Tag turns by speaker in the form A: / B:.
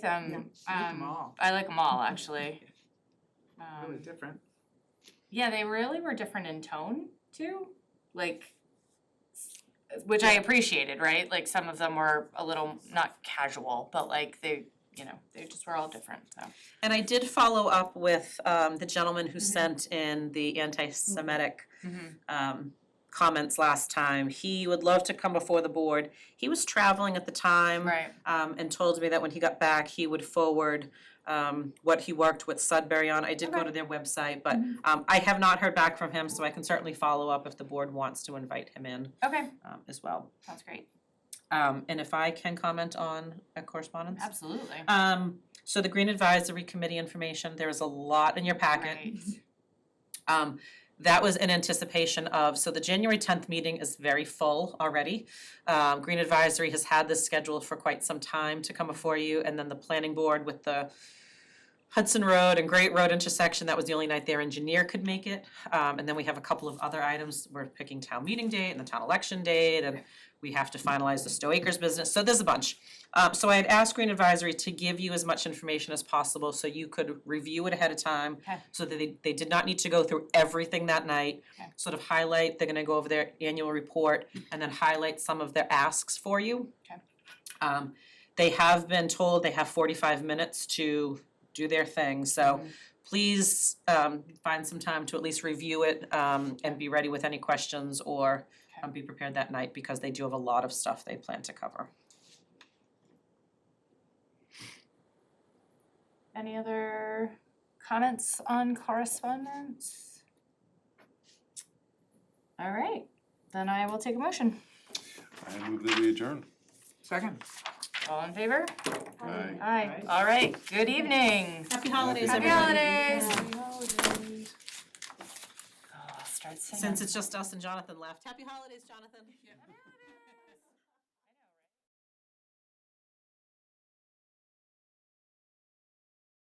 A: Um,
B: Yeah,
A: um,
B: she liked 'em all.
A: I like them all, actually.
B: really
A: Um,
B: different.
A: yeah, they really were different in tone too, like, s- which I appreciated, right? Like some of them were a little not casual, but like they, you know, they just were all different. So
C: And I did follow up with um the gentleman who sent in the anti-Semitic
B: Mm-hmm.
C: um comments last time. He would love to come before the board. He was traveling at the time
A: right,
C: um and told me that when he got back, he would forward um what he worked with Sudbury on. I did go
A: Okay. Mm-hmm.
C: to their website, but um I have not heard back from him, so I can certainly follow up if the board wants to invite him in
A: okay,
C: um as well.
A: sounds great.
C: Um and if I can comment on a correspondence?
A: Absolutely.
C: Um, so the Green Advisory Committee information, there is a lot in your packet.
A: Right.
C: Um, that was in anticipation of, so the January tenth meeting is very full already. Um, Green Advisory has had this scheduled for quite some time to come before you, and then the planning board with the Hudson Road and Great Road intersection, that was the only night their engineer could make it. Um, and then we have a couple of other items, we're picking town meeting date and the town election date, and we have to finalize the Stowe Acres business, so there's a bunch. Um, so I had asked Green Advisory to give you as much information as possible, so you could review it ahead of time.
A: Okay.
C: So that they, they did not need to go through everything that night.
A: Okay.
C: Sort of highlight, they're gonna go over their annual report, and then highlight some of their asks for you.
A: Okay.
C: Um, they have been told they have forty-five minutes to do their thing, so please, um, find some time to at least review it, um, and be ready with any questions or
A: Okay.
C: um, be prepared that night, because they do have a lot of stuff they plan to cover.
A: Any other comments on correspondence? All right, then I will take a motion.
D: I move that we adjourn.
B: Second.
A: All in favor?
D: Aye.
A: Aye. All right, good evening.
C: Happy holidays,
D: Happy
C: everyone.
A: Happy holidays.
B: holidays.
A: Oh, I'll Start singing.
C: Since it's just us and Jonathan left, happy holidays, Jonathan.